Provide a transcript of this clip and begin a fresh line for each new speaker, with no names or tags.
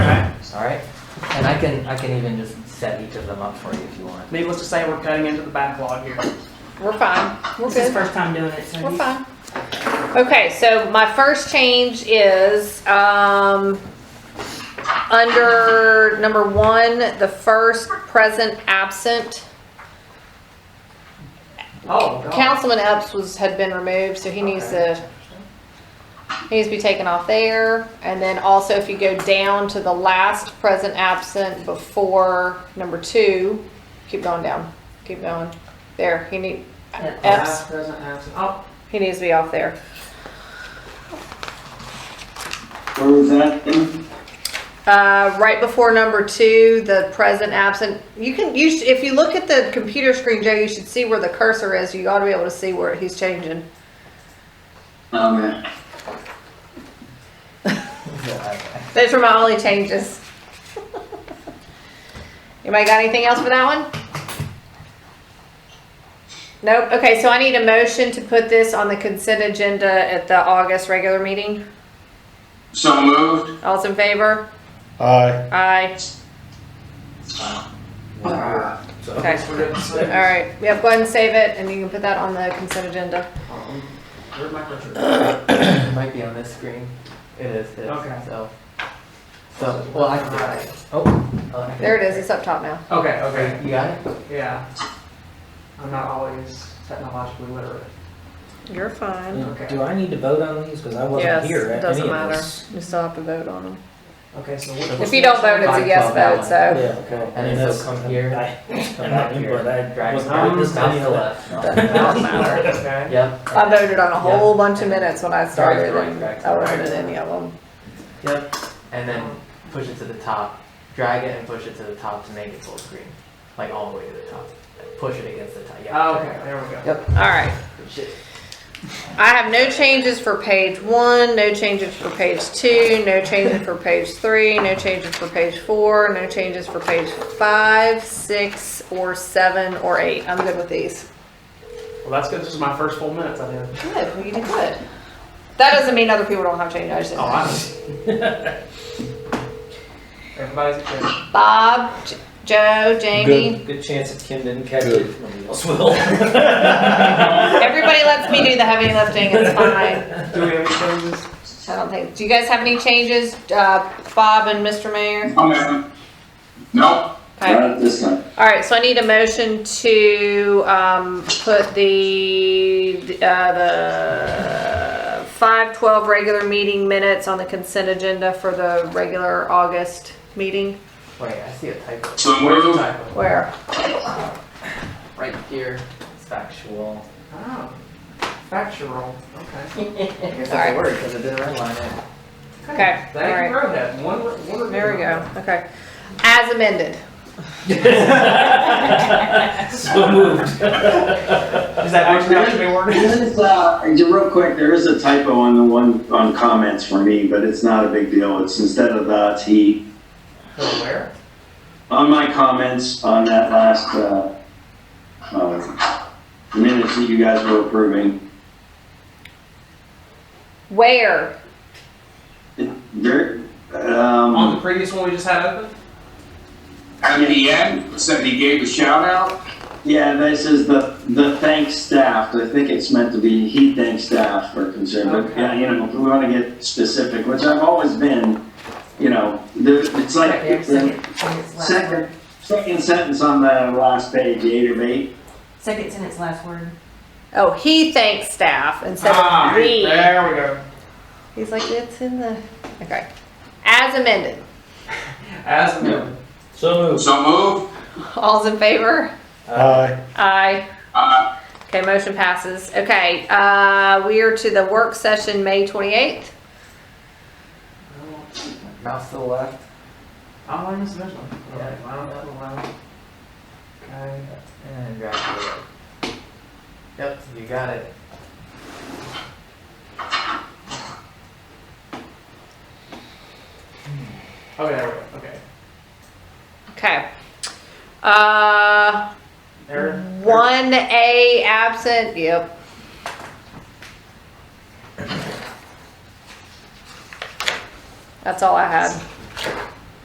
can, I can even just set each of them up for you if you want.
Needless to say, we're cutting into the backlog here.
We're fine. We're
This is
good.
his first time doing it, so
We're
he's-
fine. Okay, so my first change is, um, under number one, the first present absent.
Oh, God.
Councilman Epps was, had been removed, so he needs to, he needs to be taken off there. And then also if you go down to the last present absent before number two, keep going down, keep going. There, he need, Epps,
Oh,
he needs to be off there.
Where was that?
Uh, right before number two, the present absent. You can you sh- if you look at the computer screen, Joe, you should see where the cursor is. You ought to be able to see where he's changing.
Okay.
Those were my only changes. Anybody got anything else for that one? Nope. Okay, so I need a motion to put this on the consent agenda at the August regular meeting.
So moved.
All's in favor?
Aye.
Aye.
Wow. So-
Okay.
we're good to see.
All right. Yep. Go ahead and save it, and you can put that on the consent agenda.
Um, Where'd my cursor?
It Uh, might be on this screen. It is his,
Okay.
so. So, well, I can do it. Oh. oh, I can-
There it is. It's up top now.
Okay, okay,
You got it?
yeah. I'm not always technologically literate.
You're fine.
Okay.
Do I need to vote on these? Because I wasn't
Yes,
here
it
at any
doesn't
of
matter.
this.
You still have to vote on them.
Okay, so what?
If you don't vote, it's a yes vote, so.
Yeah, okay.
And then so come here.
I-
Come
I'm
back
not
here.
in, but I
Drag
was
it
not
down.
this
Mouse
many
to
of that.
left.
Doesn't matter.
Okay.
Yep.
I voted on a whole bunch of minutes when I started
Sorry,
and
right, right,
I wasn't in
right.
any of them.
Yep. And then push it to the top. Drag it and push it to the top to make it full screen. Like all the way to the top. Push it against the top. Yeah.
Oh, okay, there we go.
Yep.
All right.
Shit.
I have no changes for page one, no changes for page two, no changes for page three, no changes for page four, no changes for page five, six, or seven, or eight. I'm good with these.
Well, that's good. This is my first full minutes I did.
Good, well, you did good. That doesn't mean other people don't have changes. I just
Oh,
didn't.
I. Everybody's a kid.
Bob, J- Joe, Jamie.
Good, good chance that Kim didn't catch
Good.
it. Nobody else will.
Everybody lets me do the heavy lifting, it's fine.
Do we have any changes?
I don't think, do you guys have any changes, uh, Bob and Mr. Mayor?
Okay. Oh, Nope.
Okay,
Not at this time.
all right, so I need a motion to, um, put the, uh, the five twelve regular meeting minutes on the consent agenda for the regular August meeting.
Wait, I see a typo.
So
Where's the
moved.
typo?
Where?
Right here. It's factual.
Oh, factual. Okay.
It's
Alright.
a word because it didn't underline it.
Okay, all
Thank you,
right,
Rohit. One, one.
there we go, okay. As amended.
So moved.
Is that actually how it should be worded?
There is, uh, just real quick, there is a typo on the one, on comments for me, but it's not a big deal. It's instead of the T,
Oh, Where?
on my comments on that last, uh, uh, minutes that you guys were approving,
Where?
there,
On the
um,
previous one we just had open?
At the end, said he gave a shout out.
yeah, this is the, the thanks staff. I think it's meant to be he thanks staff for concern, but,
Okay.
yeah, you know, if we wanna get specific, which I've always been, you know, there, it's like,
There's second- sentence, last
Second,
word.
second sentence on the last page, eight of eight.
Second sentence, last word.
Oh, he thanks staff instead
Ah,
of we.
There we go.
He's like, it's in the, okay. As amended,
As amended.
So moved.
So move.
all's in favor?
Aye.
Aye.
Uh,
Okay, motion passes. Okay, uh, we are to the work session, May twenty-eighth.
Mouse to the left.
I'm on this one. Okay,
Yeah.
line up, line up. Okay.
And then drag to the right. Yep, you got it.
Okay, there we go. Okay.
Okay. Uh,
There.
one A absent, yep. That's all I had.